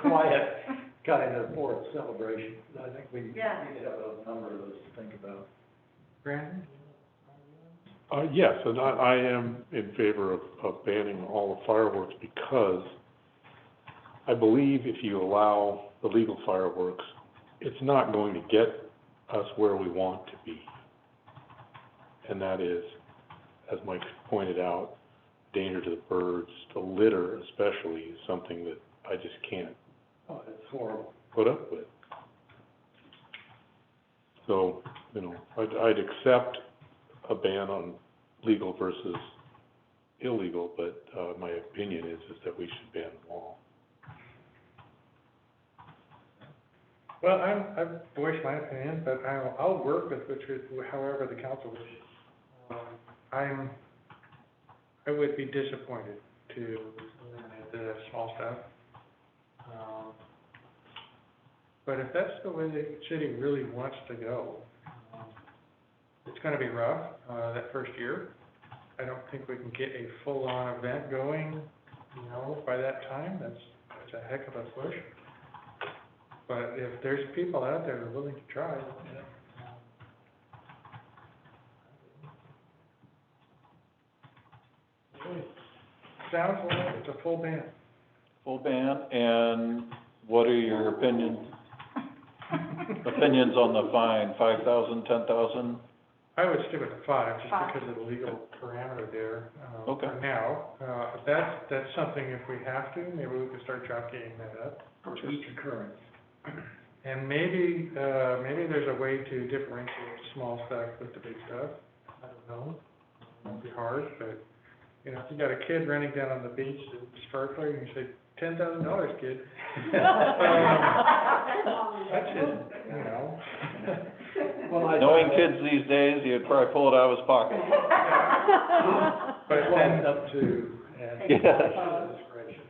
quiet kind of for a celebration. I think we need to Yeah. have a number of those to think about. Brandon? Uh, yes, and I, I am in favor of, of banning all the fireworks because I believe if you allow the legal fireworks, it's not going to get us where we want to be. And that is, as Mike pointed out, danger to the birds, the litter especially is something that I just can't Oh, it's horrible. put up with. So, you know, I'd, I'd accept a ban on legal versus illegal, but, uh, my opinion is, is that we should ban them all. Well, I'm, I voiced my opinion, but I'll, I'll work with Richard however the council wishes. Um, I'm, I would be disappointed to eliminate the small stuff. Um, But if that's the way the city really wants to go, um, it's gonna be rough, uh, that first year. I don't think we can get a full-on event going, you know, by that time, that's, that's a heck of a push. But if there's people out there that are willing to try, you know. Sounds like it's a full band. Full ban, and what are your opinions, opinions on the fine, five thousand, ten thousand? I would stick with the five, just Five. because of the legal parameter there, uh, Okay. for now. Uh, that's, that's something if we have to, maybe we could start jockeying that up. Each occurrence. And maybe, uh, maybe there's a way to differentiate small stuff with the big stuff. I don't know. It'd be hard, but, you know, if you got a kid running down on the beach that's sparkling, you say, ten thousand dollars, kid. That's just, you know. Well, I- Knowing kids these days, you'd probably pull it out of his pocket. But But then, up to, uh, and. Yeah. Discretion.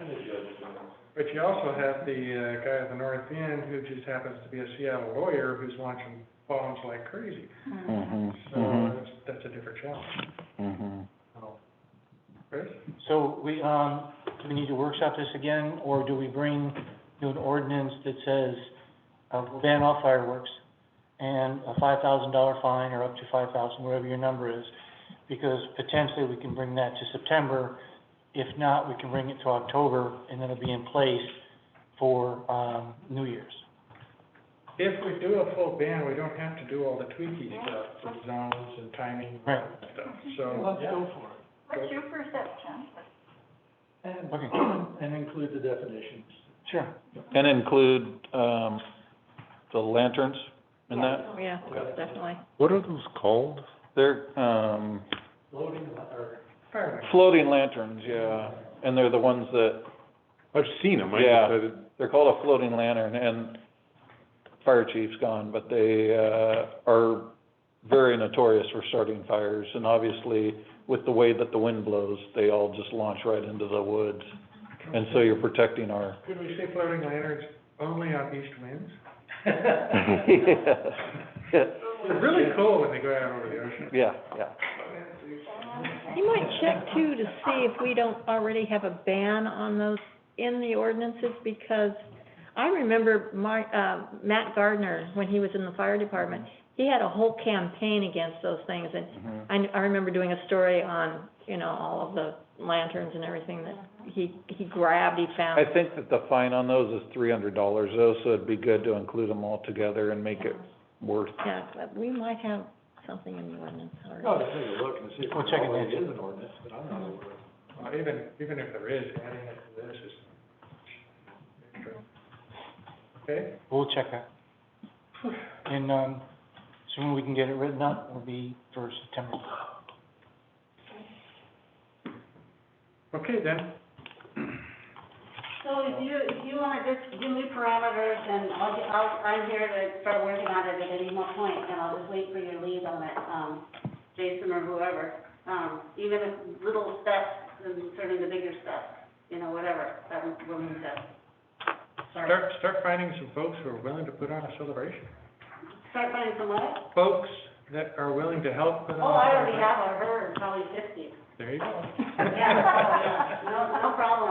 And the judge. but you also have the, uh, guy at the north end who just happens to be a Seattle lawyer who's launching bombs like crazy. So uh, Mm-hmm, that's, that's a different challenge. mm-hmm. Chris? So we, um, do we need to workshop this again, or do we bring you an ordinance that says, uh, we'll ban all fireworks and a five thousand dollar fine or up to five thousand, whatever your number is? Because potentially we can bring that to September. If not, we can bring it to October and it'll be in place for, um, New Year's. If we do a full ban, we don't have to do all the tweaky stuff, the zones and timing and Right. stuff, so. Let's go for it. What's your perception? And, Okay. and include the definitions. Sure. And include, um, the lanterns in that? Yeah, definitely. What are those called? They're, um, Loading, or, Fireworks. floating lanterns, yeah, and they're the ones that, I've seen them, I Yeah. just, I didn't- they're called a floating lantern, and fire chief's gone, but they, uh, are very notorious for starting fires, and obviously, with the way that the wind blows, they all just launch right into the woods, and so you're protecting our. Could we say floating lanterns only on east winds? Mm-hmm. They're really cool when they go out over the ocean. Yeah, yeah. You might check too to see if we don't already have a ban on those in the ordinances because I remember my, uh, Matt Gardner, when he was in the fire department, he had a whole campaign against those things and Mhm. I, I remember doing a story on, you know, all of the lanterns and everything that he, he grabbed, he found. I think that the fine on those is three hundred dollars though, so it'd be good to include them all together and make it worth. Yeah, but we might have something in the ordinance already. oh, just take a look and see if We'll check it it next. is an ordinance, but I'm not aware. Uh, Even, even if there is, adding it to this is. extra. Okay, We'll check that. And, um, soon we can get it written up, it'll be for September. okay then, So if you, if you wanna just give me parameters and I'll, get- I'll, I'm here to start working on it at any more point and I'll just wait for your lead on it, um, Jason or whoever. Um, even if little steps and turning the bigger steps, you know, whatever, that would, we'll move that. Start, start, start finding some folks who are willing to put on a celebration. start finding some money. Folks that are willing to help put on. Oh, a I already celebration. have a herd, probably fifty. There you go. Yeah, yeah, no, no problem.